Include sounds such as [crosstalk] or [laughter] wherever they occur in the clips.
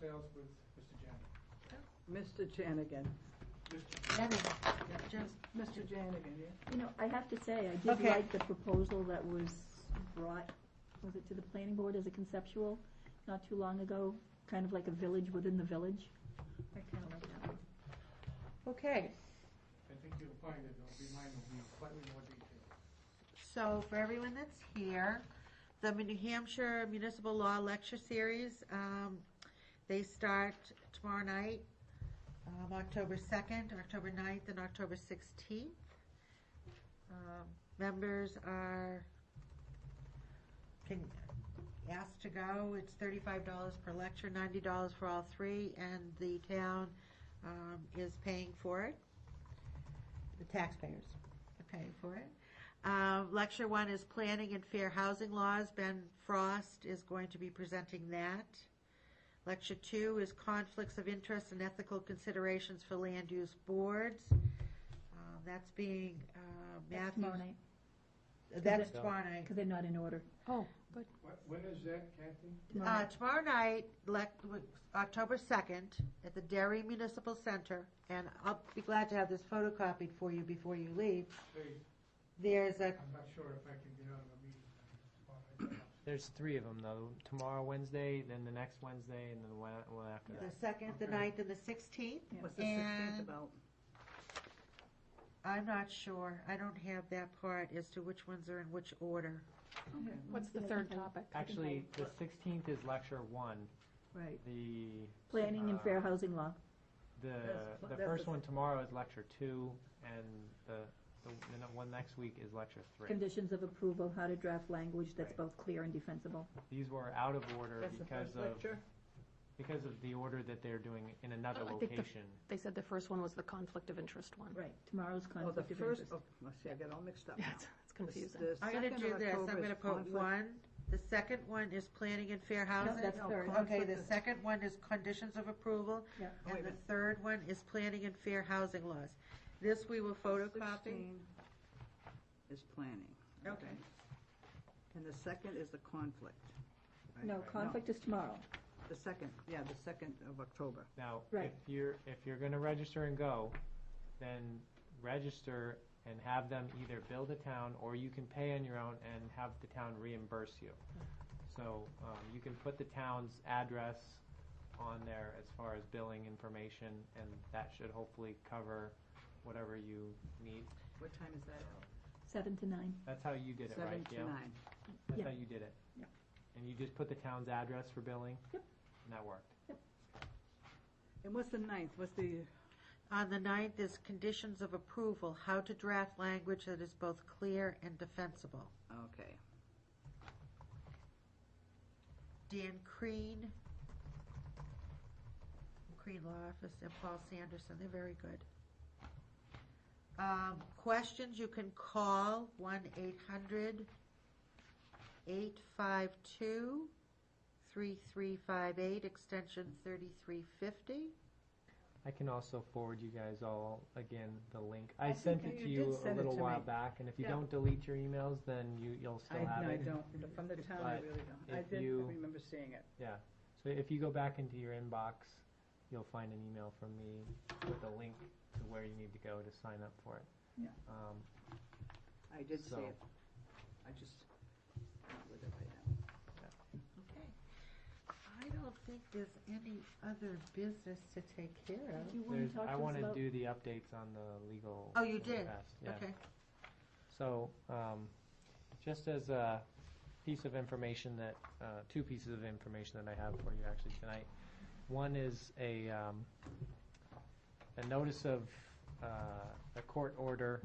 Sales with Mr. Janney. Mr. Janigan. Mr. Janigan, yeah. You know, I have to say, I did Okay. like the proposal that was brought, was it to the planning board as a conceptual, not too long ago, kind of like a village within the village. I kind of like that one. Okay, I think you'll find it, it'll be mine, will be slightly more detailed. so for everyone that's here, the New Hampshire Municipal Law Lecture Series, um, they start tomorrow night, um, October 2nd, October 9th, and October 16th. Um, Members are, can ask to go, it's $35 per lecture, $90 for all three, and the town um, is paying for it. The taxpayers are paying for it. Um, lecture one is Planning and Fair Housing Laws. Ben Frost is going to be presenting that. Lecture two is Conflicts of Interest and Ethical Considerations for Land Use Boards. Um, that's being uh, That's Matthew. tomorrow night, That's tomorrow night. because they're not in order. Oh, but What, when is that, Kathy? Tomorrow Uh, night. tomorrow night, lec- October 2nd, at the Derry Municipal Center, and I'll be glad to have this photocopied for you before you leave. Hey, There's a, I'm not sure if I can get out of a [clears throat] meeting. Well, I- There's three of them though. Tomorrow, Wednesday, then the next Wednesday, and then the one, one after the that. 2nd, the Okay. 9th, and the 16th. What's the And- sixteenth about? I'm not sure. I don't have that part as to which ones are in which order. Okay. what's the third topic? Actually, the 16th is lecture one. Right. The Planning and uh, Fair Housing Law. The That's- the that's first the- one tomorrow is lecture two, and the the, the ne- one next week is lecture three. Conditions of approval, how to draft language that's Right. both clear and defensible. These were out of order That's the because first of lecture? because of the order that they're doing in another Oh, I think the- location. They said the first one was the conflict of interest one. Right, tomorrow's Oh, the conflict of first, oh, interest. let's see, I got all mixed up Yeah, now. [laughs] it's The it's s- confusing. the I'm gonna second do of this. I'm October gonna is put conflict- one. The second one is Planning and Fair Housing. that's no, third. Okay, conflict the is- second one is Conditions of Approval. Yeah. Oh, wait a And the minute. third one is Planning and Fair Housing Laws. This we will photocopy. 16 Is planning. Okay. And the second is the conflict. right? No, conflict is tomorrow. The second, yeah, the second of October. Now, if Right. you're, if you're gonna register and go, then register and have them either build a town, or you can pay on your own and have the town reimburse you. So, um, you can put the town's address on there as far as billing information, and that should hopefully cover whatever you need. What time is that? Seven to nine. That's how you did it, right, Seven to Gail? nine. That's Yeah. how you did it? Yeah. And you just put the town's address for billing? Yep. And that worked? And what's the ninth? What's the, On the ninth is Conditions of Approval, how to draft language that is both clear and defensible. okay. Dan Crean, Crean Law Office, and Paul Sanderson, they're very good. Um, questions, you can call one eight hundred eight five two three three five eight, extension thirty-three fifty. I can also forward you guys all again the link. I I think sent that you it to did you a send it little to while me. back, and if you Yeah. don't delete your emails, then you, you'll still I, have no, I it. don't. From the town, I But really don't. I if did you- remember seeing it. Yeah. So if you go back into your inbox, you'll find an email from me with a link to where you need to go to sign up for it. Yeah. Um, I did see So- it. I just, not with it right now. Okay. I don't think there's any other business to take care Do of. you want there's- to talk I to us wanna about? do the updates on the legal. Oh, you in the did? past, Yeah. Okay. So, um, just as a piece of information that, uh, two pieces of information that I have for you actually tonight. One is a, um, a notice of, uh, a court order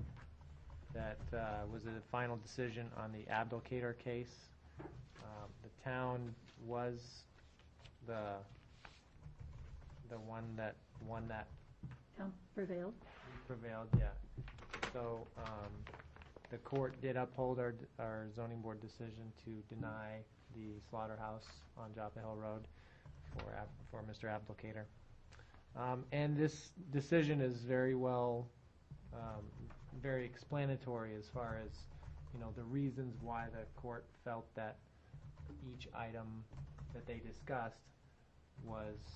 that, uh, was the final decision on the Abdulkader case. Um, The town was the, the one that won that Town prevailed. prevailed, yeah. So, um, the court did uphold our, our zoning board decision to deny the slaughterhouse on Joppa Hill Road for, Ab- for Mr. Applicator. Um, and this decision is very well, um, very explanatory as far as, you know, the reasons why the court felt that each item that they discussed was